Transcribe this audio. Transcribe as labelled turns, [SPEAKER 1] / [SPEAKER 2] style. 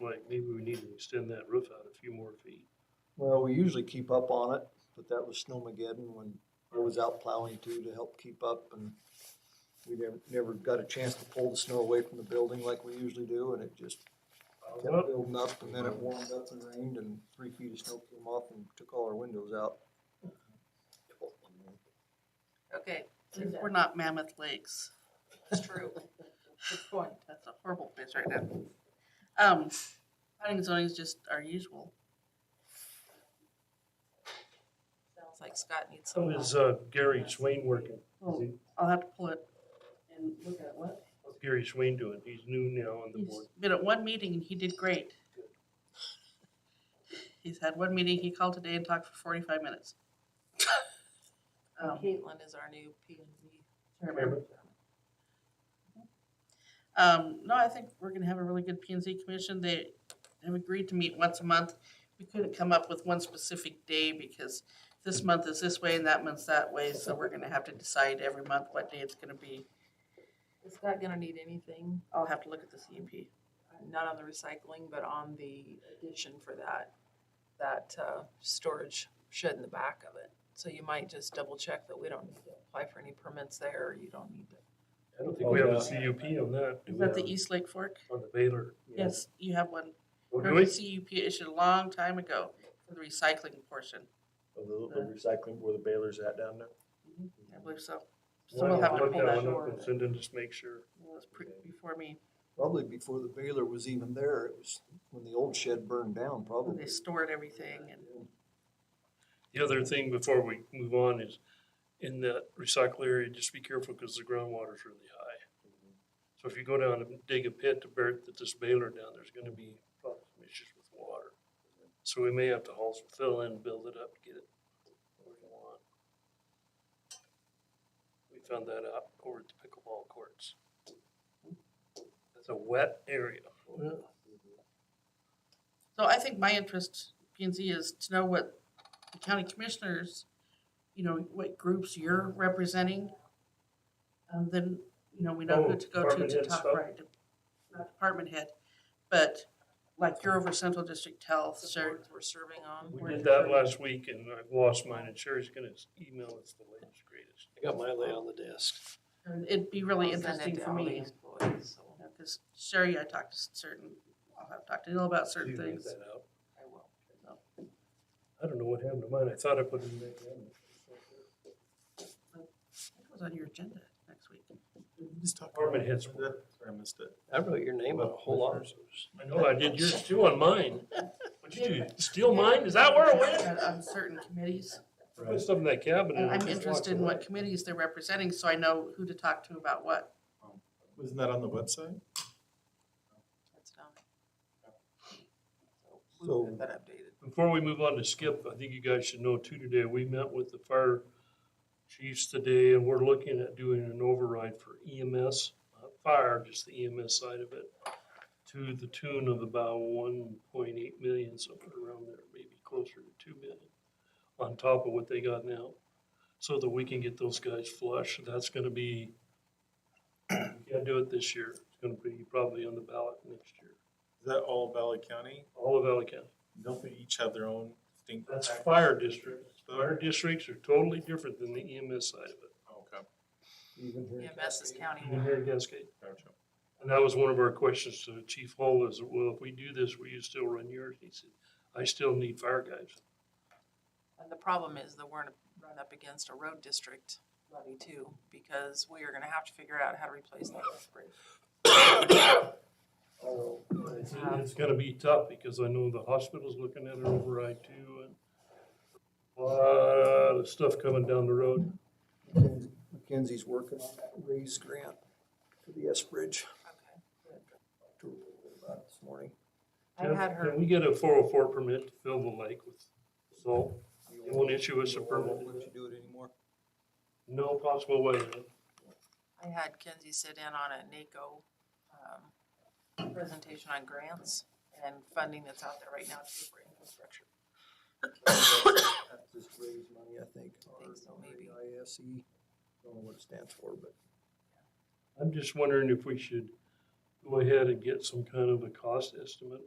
[SPEAKER 1] like, maybe we need to extend that roof out a few more feet.
[SPEAKER 2] Well, we usually keep up on it, but that was Snowmageddon when I was out plowing too to help keep up and we never, never got a chance to pull the snow away from the building like we usually do and it just kept
[SPEAKER 1] Well,
[SPEAKER 2] building up and then it warmed up and rained and three feet of snow came off and took all our windows out.
[SPEAKER 3] Okay,
[SPEAKER 4] Linda.
[SPEAKER 3] we're not Mammoth Lakes.
[SPEAKER 4] It's true.
[SPEAKER 3] Good point. That's a horrible place right now. Um, planning and zoning is just our usual.
[SPEAKER 4] Sounds like Scott needs some.
[SPEAKER 1] How is uh, Gary Swain working? Is he-
[SPEAKER 3] I'll have to pull it and look at what.
[SPEAKER 1] What's Gary Swain doing? He's new now on the
[SPEAKER 3] He's
[SPEAKER 1] board.
[SPEAKER 3] been at one meeting and he did great. He's had one meeting, he called today and talked for forty-five minutes. Um,
[SPEAKER 4] Caitlin is our new P and Z.
[SPEAKER 1] Cameron?
[SPEAKER 3] Um, no, I think we're gonna have a really good P and Z commission. They have agreed to meet once a month. We couldn't come up with one specific day because this month is this way and that month's that way, so we're gonna have to decide every month what day it's gonna be.
[SPEAKER 4] Is Scott gonna need anything?
[SPEAKER 3] I'll have to look at the CMP.
[SPEAKER 4] Not on the recycling, but on the addition for that, that, uh, storage shed in the back of it. So you might just double check that we don't need to apply for any permits there, or you don't need to.
[SPEAKER 1] I don't think we have a CUP on that. do
[SPEAKER 3] Is
[SPEAKER 1] we?
[SPEAKER 3] that the E East Lake Fork?
[SPEAKER 1] On the Baylor.
[SPEAKER 3] Yes, E you have one.
[SPEAKER 1] Oh, do
[SPEAKER 3] Remember
[SPEAKER 1] we?
[SPEAKER 3] the CUP issued a long time ago for the recycling portion.
[SPEAKER 5] of the, the recycling where the baler's at down there.
[SPEAKER 3] I believe so. So
[SPEAKER 1] Well,
[SPEAKER 3] we'll have
[SPEAKER 1] I'll
[SPEAKER 3] to
[SPEAKER 1] look
[SPEAKER 3] pull
[SPEAKER 1] that
[SPEAKER 3] that.
[SPEAKER 1] one
[SPEAKER 3] It
[SPEAKER 1] up and send in just make sure.
[SPEAKER 3] was pre- before me.
[SPEAKER 2] Probably before the baler was even there, it was when the old shed burned down
[SPEAKER 3] They
[SPEAKER 2] probably.
[SPEAKER 3] stored everything and
[SPEAKER 1] The other thing before we move on is in that recycle area, just be careful because the groundwater's really high. So if you go down and dig a pit to bury th- this baler down, there's gonna be probably some issues with water. So we may have to haul some fill in, build it up, to get it where you want. We found that out over at the pickleball courts. It's a wet area.
[SPEAKER 3] So I think my interest, P and Z, is to know what the county commissioners, you know, what groups you're representing. And then, you know, we know
[SPEAKER 1] Oh,
[SPEAKER 3] who to go to
[SPEAKER 1] department
[SPEAKER 3] to
[SPEAKER 1] head
[SPEAKER 3] talk,
[SPEAKER 1] stuff?
[SPEAKER 3] right, to- not department head. But like you're over Central District Health,
[SPEAKER 4] The
[SPEAKER 3] so
[SPEAKER 4] boards we're serving on.
[SPEAKER 1] We did that last week and I lost mine and Sherry's gonna email us the latest greatest.
[SPEAKER 5] I got my lay on the desk.
[SPEAKER 3] it'd be really
[SPEAKER 4] I'll send it
[SPEAKER 3] interesting
[SPEAKER 4] to
[SPEAKER 3] for
[SPEAKER 4] all the
[SPEAKER 3] me.
[SPEAKER 4] employees, so
[SPEAKER 3] Because Sherry, I talked to certain, I'll have talked to Neil about certain
[SPEAKER 1] You read
[SPEAKER 3] things.
[SPEAKER 1] that out.
[SPEAKER 4] I will.
[SPEAKER 1] I don't know what happened to mine. I thought I put it in there.
[SPEAKER 3] It was on your agenda next week.
[SPEAKER 1] Department heads.
[SPEAKER 5] Sorry, I missed it.
[SPEAKER 6] I wrote your name on a whole lot.
[SPEAKER 1] I know, I did yours too on mine. What'd you do? Steal mine? Is that where it went?
[SPEAKER 3] Uh, On certain committees.
[SPEAKER 1] Put stuff in that cabinet. and
[SPEAKER 3] And
[SPEAKER 1] it
[SPEAKER 3] I'm
[SPEAKER 1] just
[SPEAKER 3] interested in
[SPEAKER 1] walked
[SPEAKER 3] what committees they're representing, so I know who to talk to about what.
[SPEAKER 5] Wasn't that on the website?
[SPEAKER 4] That's done.
[SPEAKER 2] So-
[SPEAKER 4] So we'll get that updated.
[SPEAKER 1] away. Before we move on to Skip, I think you guys should know too today, we met with the fire chiefs today and we're looking at doing an override for E EMS, not uh, fire, just the EMS side of it, to the tune of about one point eight million, somewhere around there, maybe closer to two million, on top of what they got now, so that we can get those guys flush. That's gonna be, we can't do it this year. It's gonna be probably on the ballot next year.
[SPEAKER 5] Is that all Valley County?
[SPEAKER 1] All of Valley County.
[SPEAKER 5] Don't they each have their own distinct?
[SPEAKER 1] That's
[SPEAKER 5] tax-
[SPEAKER 1] fire districts.
[SPEAKER 5] Oh,
[SPEAKER 1] Fire districts are totally different than the EMS side of it.
[SPEAKER 5] Okay,
[SPEAKER 2] Even here in
[SPEAKER 4] EMS is
[SPEAKER 2] Cascade.
[SPEAKER 4] county.
[SPEAKER 1] in here in Cascade.
[SPEAKER 5] gotcha.
[SPEAKER 1] And that was one of our questions to Chief Hall is, well, if we do this, will you still run yours? He said, I still need fire guys.
[SPEAKER 4] And the problem is that we're run up against a road district levy too, because we are gonna have to figure out how to replace that road bridge.
[SPEAKER 2] Oh,
[SPEAKER 1] It's, it's gonna be tough because I know the hospital's looking at an override too and a lot of stuff coming down the road.
[SPEAKER 2] McKenzie- McKenzie's working on that raise grant for the S Bridge.
[SPEAKER 4] Okay.
[SPEAKER 2] Talked to her a little bit about it This morning.
[SPEAKER 4] I had her,
[SPEAKER 1] Can we get a four oh four permit to fill the lake with salt? They won't issue us a
[SPEAKER 2] Won't
[SPEAKER 1] permit.
[SPEAKER 2] let you do it anymore.
[SPEAKER 1] No possible way.
[SPEAKER 4] I had Kenzie sit in on a NACO, um, presentation on grants and funding that's out there right now too for infrastructure.
[SPEAKER 2] That's Just raise money, I think, or
[SPEAKER 4] Think so, maybe.
[SPEAKER 2] ISE, E. don't know what it stands for, but.
[SPEAKER 1] I'm just wondering if we should go ahead and get some kind of a cost estimate